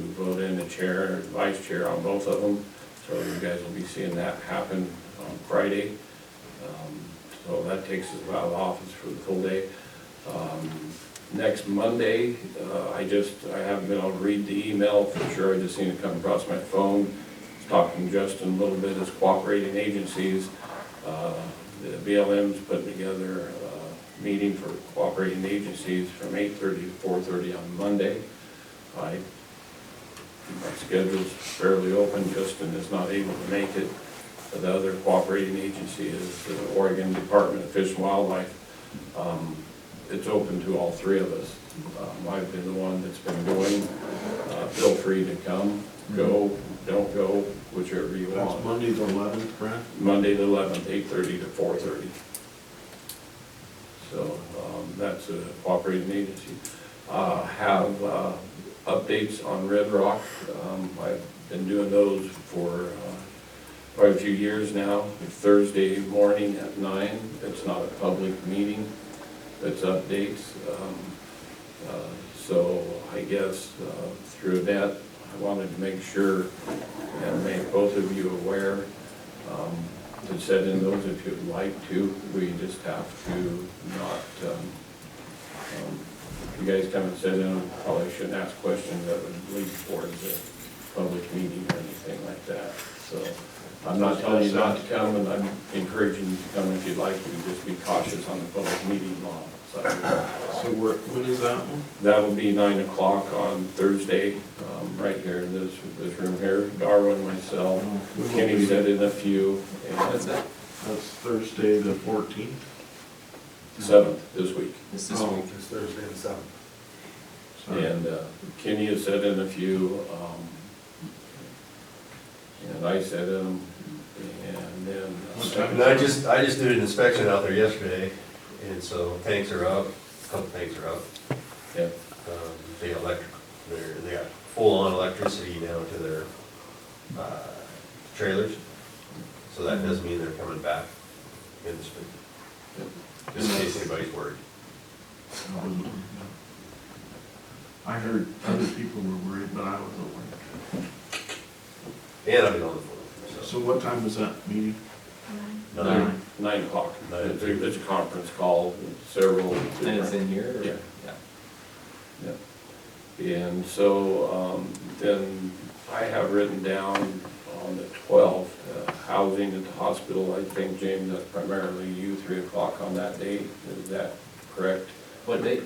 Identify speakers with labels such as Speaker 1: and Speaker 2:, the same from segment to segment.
Speaker 1: the chair and vice chair on both of them. So you guys will be seeing that happen on Friday. Um, So that takes us out of the office for the full day. Um, Next Monday, uh, I just, I haven't been able to read the email for sure, I just seen it come across my phone. Was Talking to Justin a little bit, as cooperating agencies, uh, the BLM's putting together a meeting for cooperating agencies from eight-thirty to four-thirty on Monday. I my schedule's fairly open, Justin is not able to make it. But The other cooperating agency is the Oregon Department of Fish and Wildlife. Um, It's open to all three of us. Um, I've been the one that's been going. Uh, Feel free to come, go, don't go, whichever you
Speaker 2: That's
Speaker 1: want.
Speaker 2: Monday the eleventh, Brent?
Speaker 1: Monday the eleventh, eight-thirty to four-thirty. So um, that's a cooperating agency. Uh, Have uh, updates on Red Rock. Um, I've been doing those for uh, quite a few years now. Thursday morning at nine. It's not a public meeting. It's updates. Um, uh, So I guess uh, through that, I wanted to make sure and make both of you aware um, to set in those if you'd like to. We just have to not, um, um, if you guys come and set in, probably shouldn't ask questions that would lead towards a public meeting or anything like that. So I'm not telling you not to come, and I'm encouraging you to come if you'd like to, just be cautious on the public meeting law side.
Speaker 2: So where, when is that one?
Speaker 1: That will be nine o'clock on Thursday, um, right here in this, this room here. Darwin, myself,
Speaker 3: Oh,
Speaker 1: Kenny set in a few,
Speaker 3: That's
Speaker 1: and
Speaker 3: it,
Speaker 2: That's Thursday the fourteenth?
Speaker 1: seventh this week.
Speaker 3: it's this week.
Speaker 4: It's Thursday the seventh.
Speaker 1: And uh, Kenny has set in a few, um, and I set in them, and then. uh,
Speaker 2: What time?
Speaker 4: And I just, I just did an inspection out there yesterday, and so tanks are up, a couple tanks are up.
Speaker 1: Yeah,
Speaker 4: Um, They electric, they're, they got full-on electricity now to their, uh, trailers. So that does mean they're coming back in the spring, just in case anybody's worried.
Speaker 2: I heard other people were worried, but I wasn't worried.
Speaker 4: And I've been on the
Speaker 2: So
Speaker 4: phone, so.
Speaker 2: what time was that meeting?
Speaker 1: Nine, nine o'clock.
Speaker 4: Nine.
Speaker 1: It's a- it's a conference call, several.
Speaker 3: And it's Oh, in here? or-
Speaker 1: Yeah.
Speaker 3: Yeah.
Speaker 1: Yeah. And so, um, then I have written down on the twelfth, uh, housing at the hospital, I think, James, that's primarily you, three o'clock on that date, is that correct?
Speaker 3: What date?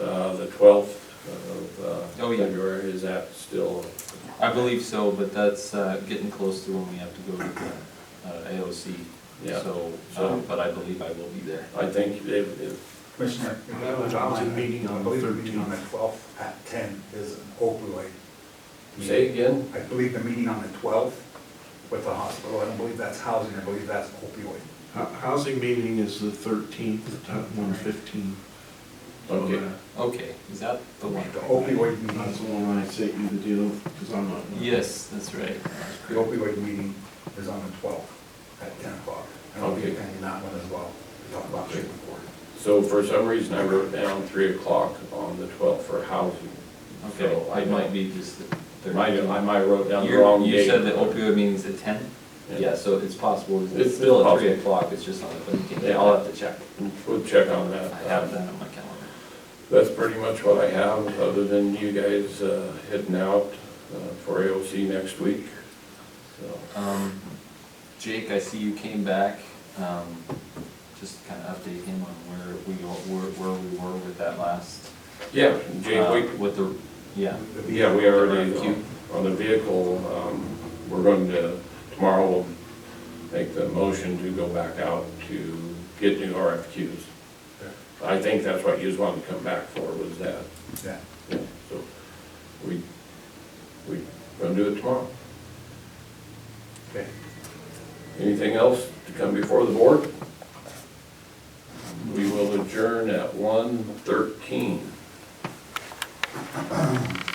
Speaker 1: Uh, the twelfth of, uh,
Speaker 3: Oh, yeah.
Speaker 1: February, is that still,
Speaker 3: I believe so, but that's uh, getting close to when we have to go to the uh, AOC.
Speaker 1: Yeah.
Speaker 3: So,
Speaker 1: So-
Speaker 3: um, but I believe I will be there.
Speaker 1: I think if, if,
Speaker 5: Commissioner.
Speaker 2: And that was our meeting on the
Speaker 5: I believe the meeting on the
Speaker 2: 13th.
Speaker 5: twelfth at ten is an opioid.
Speaker 1: say again,
Speaker 5: I believe the meeting on the twelfth with the hospital, I don't believe that's housing, I believe that's opioid.
Speaker 2: Hou- Housing meeting is the thirteenth at one fifteen.
Speaker 1: Okay.
Speaker 3: Okay, is that the one?
Speaker 5: The
Speaker 1: oh.
Speaker 5: opioid
Speaker 2: That's the
Speaker 5: meeting,
Speaker 2: one I sent you the deal, because I'm not.
Speaker 3: Yes, that's right.
Speaker 5: the opioid meeting is on the twelfth at ten o'clock. And I'll be
Speaker 1: Okay.
Speaker 5: attending that one as well, to talk about treatment board.
Speaker 1: so for some reason I wrote down three o'clock on the twelfth for housing.
Speaker 3: Okay,
Speaker 1: So
Speaker 3: I
Speaker 1: I
Speaker 3: might be just the
Speaker 1: I might,
Speaker 3: thirteenth.
Speaker 1: I might wrote down the
Speaker 3: You're-
Speaker 1: wrong date.
Speaker 3: You said the opioid meeting's at ten?
Speaker 1: Yeah.
Speaker 3: Yeah, so it's possible,
Speaker 1: It's
Speaker 3: it's still at three
Speaker 1: possible.
Speaker 3: o'clock, it's just on the thirteenth.
Speaker 1: Yeah.
Speaker 3: I'll have to check.
Speaker 1: We'll check on
Speaker 3: I
Speaker 1: that.
Speaker 3: have that on my calendar.
Speaker 1: That's pretty much what I have, other than you guys uh, heading out uh, for AOC next week. So,
Speaker 3: Um, Jake, I see you came back, um, just kind of update him on where we, are- where, where we were with that last.
Speaker 1: Yeah, Jake,
Speaker 3: uh,
Speaker 1: we,
Speaker 3: With the, yeah,
Speaker 5: The meeting-
Speaker 1: yeah, we already,
Speaker 3: Thank you.
Speaker 1: on the vehicle, um, we're going to, tomorrow we'll make the motion to go back out to get new RFQs. I think that's what you just wanted to come back for, was that.
Speaker 5: Yeah,
Speaker 1: Yeah, So, we, we, gonna do it tomorrow.
Speaker 5: okay.
Speaker 1: Anything else to come before the board? We will adjourn at one thirteen.